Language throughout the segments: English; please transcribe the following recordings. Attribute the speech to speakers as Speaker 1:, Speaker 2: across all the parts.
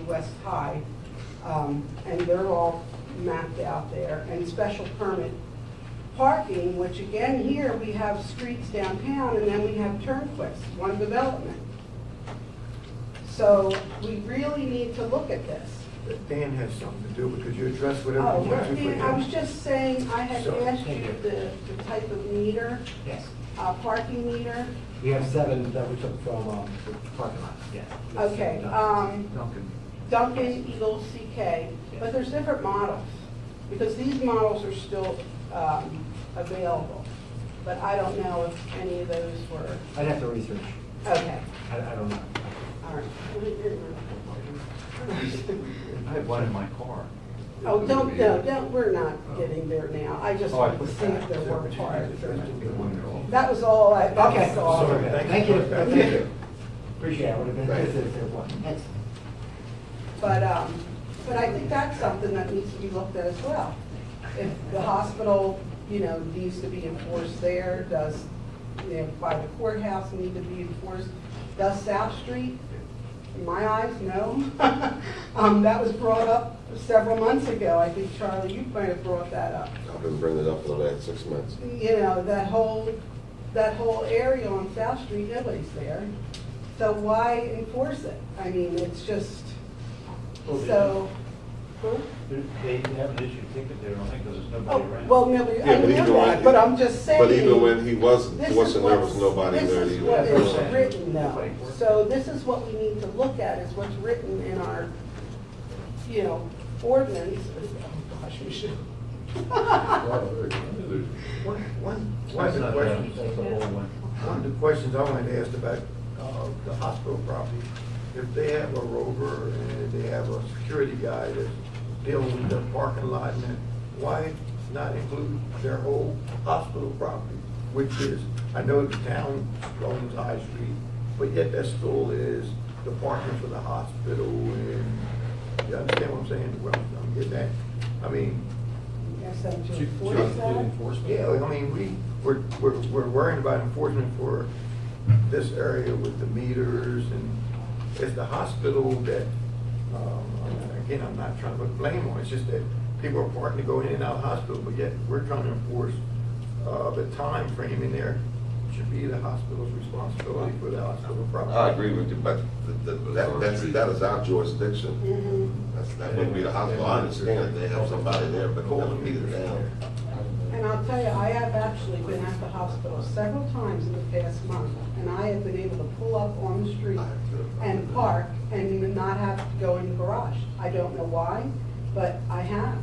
Speaker 1: West High, um, and they're all mapped out there, and special permit parking, which again, here, we have streets downtown, and then we have Turnquist, one development. So we really need to look at this.
Speaker 2: That Dan has something to do because you address whatever
Speaker 1: Oh,
Speaker 2: you want to.
Speaker 1: well, I was just saying, I had
Speaker 2: So,
Speaker 1: asked
Speaker 3: thank
Speaker 1: you
Speaker 3: you.
Speaker 1: the, the type of meter,
Speaker 3: Yes,
Speaker 1: uh, parking meter.
Speaker 3: we have seven that we took from um, the parking lot, uh, yes.
Speaker 1: Okay, um,
Speaker 2: Duncan.
Speaker 1: Duncan, Eagle, CK, but there's different models, because these models are still, um, available. But I don't know if any of those were,
Speaker 3: I'd have to research,
Speaker 1: okay,
Speaker 3: I, I don't know.
Speaker 1: all right.
Speaker 4: I have one in my car.
Speaker 1: Oh, don't, no, don't, we're not getting there now. I just
Speaker 4: Oh, I
Speaker 1: wanted to
Speaker 4: put
Speaker 1: see if
Speaker 4: that.
Speaker 1: there were parts.
Speaker 4: Thank
Speaker 1: That was all I,
Speaker 3: Okay,
Speaker 1: that was all.
Speaker 2: Sorry.
Speaker 3: thank you, thank you. Appreciate it, I would have been,
Speaker 2: Right.
Speaker 3: this is one, thanks.
Speaker 1: But, um, but I think that's something that needs to be looked at as well. If the hospital, you know, needs to be enforced there, does, you know, by the courthouse need to be enforced? Does South Street? In my eyes, no. Um, that was brought up several months ago. I think, Charlie, you might have brought that up.
Speaker 5: I've been bringing it up for the last six months.
Speaker 1: you know, that whole, that whole area on South Street, nobody's there. So why enforce it? I mean, it's just, so.
Speaker 4: They haven't issued a ticket there, I don't think, because there's nobody
Speaker 1: Oh,
Speaker 4: around.
Speaker 1: well, nobody, I
Speaker 5: Yeah, but even
Speaker 1: know that,
Speaker 5: when-
Speaker 1: but I'm just saying.
Speaker 5: But even when he wasn't,
Speaker 1: this
Speaker 5: he
Speaker 1: is
Speaker 5: wasn't, there was
Speaker 1: what's-
Speaker 5: nobody there.
Speaker 1: This is
Speaker 5: either.
Speaker 1: what
Speaker 4: That's what
Speaker 1: is
Speaker 4: I'm
Speaker 1: written now.
Speaker 4: saying.
Speaker 1: So this is what we need to look at, is what's written in our, you know, ordinance. Oh, gosh, we should.
Speaker 2: One, one, one
Speaker 4: That's
Speaker 2: of the
Speaker 4: not them,
Speaker 2: questions,
Speaker 4: that's the whole one.
Speaker 2: one of the questions I wanted to ask about uh, the hospital property, if they have a rover and they have a security guy that's dealing with their parking lot, and then why not include their whole hospital property, which is, I know the town owns High Street, but yet that still is the parking for the hospital, and, you understand what I'm saying? Well, I'm getting that, I mean,
Speaker 1: Yes, I'm
Speaker 4: Did
Speaker 1: just
Speaker 4: you- did you-
Speaker 1: enforce
Speaker 4: did
Speaker 1: that.
Speaker 4: enforcement?
Speaker 2: yeah, I mean, we, we're, we're we're worrying about enforcement for this area with the meters and it's the hospital that, um, again, I'm not trying to put blame on, it's just that people are parking to go in and out of the hospital, but yet we're trying to enforce, uh, the time frame in there should be the hospital's responsibility for the hospital property.
Speaker 5: I agree with you, but th- th- that, that's, that is our jurisdiction.
Speaker 1: Mhm.
Speaker 5: That's, that wouldn't be the hospital. I understand that they have somebody there, but that would be the town.
Speaker 1: And I'll tell you, I have actually been at the hospital several times in the past month, and I have been able to pull up on the street and park and not have to go in the garage. I don't know why, but I have.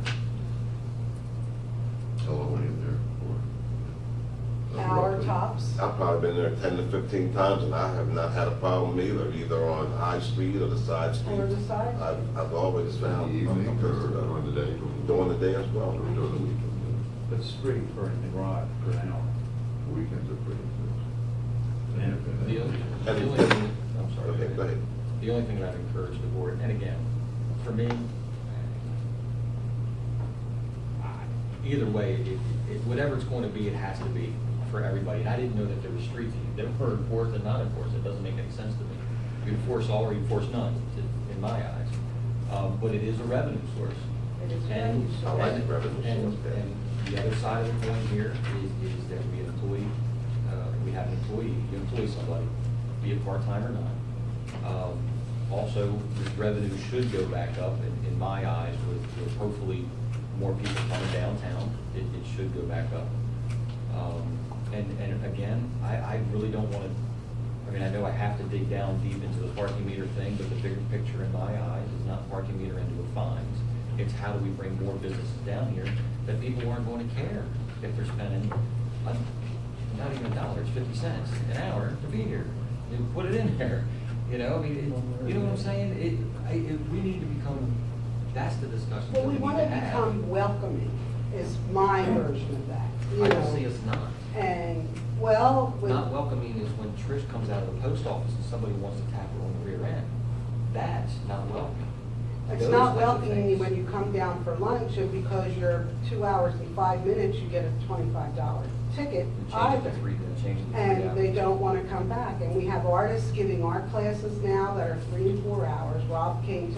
Speaker 5: How long were you there for?
Speaker 1: Hour tops.
Speaker 5: I've probably been there ten to fifteen times and I have not had a problem either, either on High Street or the side streets.
Speaker 1: Or the side.
Speaker 5: I've, I've always found.
Speaker 6: In the evening
Speaker 5: I'm- I'm-
Speaker 6: or during the day?
Speaker 5: During the day as well.
Speaker 6: Or during the weekend?
Speaker 4: But it's free for in the garage for an hour.
Speaker 6: yeah. Weekends are pretty good.
Speaker 7: The only, the
Speaker 5: And-
Speaker 7: only, thing- I'm sorry.
Speaker 5: Okay, go ahead.
Speaker 7: The only thing that I'd encourage the board, and again, for me, I- either way, it, it, whatever it's going to be, it has to be for everybody. And I didn't know that there were streets, they were enforced and not enforced, it doesn't make any sense to me. You enforce all or you enforce none, to- in my eyes. Um, but it is a revenue source.
Speaker 1: It is a
Speaker 7: And-
Speaker 1: revenue source.
Speaker 5: I like the
Speaker 7: and-
Speaker 5: revenue source,
Speaker 7: and-
Speaker 5: yeah.
Speaker 7: And the other side of the coin here is, is that we employ, uh, we have an employee, you employ somebody, be it part-time or not. Um, Also, this revenue should go back up, in, in my eyes, with, with hopefully more people coming downtown, it, it should go back up. Um, And, and again, I, I really don't wanna, I mean, I know I have to dig down deep into the parking meter thing, but the bigger picture in my eyes is not parking meter into a fines. It's how do we bring more businesses down here that people aren't going to care if they're spending, uh, not even a dollar, it's fifty cents an hour to be here. You put it in there, you know, I mean, it- you know what I'm saying? It, I, it, we need to become, that's the discussion that
Speaker 1: Well,
Speaker 7: we
Speaker 1: we
Speaker 7: need
Speaker 1: want to
Speaker 7: to have.
Speaker 1: become welcoming, is my version of that, you
Speaker 7: I don't see
Speaker 1: know.
Speaker 7: us not.
Speaker 1: And, well, with-
Speaker 7: Not welcoming is when Trish comes out of the post office and somebody wants to tap her on the rear end. That's not welcoming.
Speaker 1: it's
Speaker 7: Those
Speaker 1: not
Speaker 7: type of
Speaker 1: welcoming
Speaker 7: things.
Speaker 1: when you come down for lunch and because you're two hours and five minutes, you get a twenty-five dollar ticket
Speaker 7: And Change
Speaker 1: either.
Speaker 7: the three, and change the three
Speaker 1: and they
Speaker 7: hours.
Speaker 1: don't want to come back. And we have artists giving art classes now that are three to four hours. Rob came to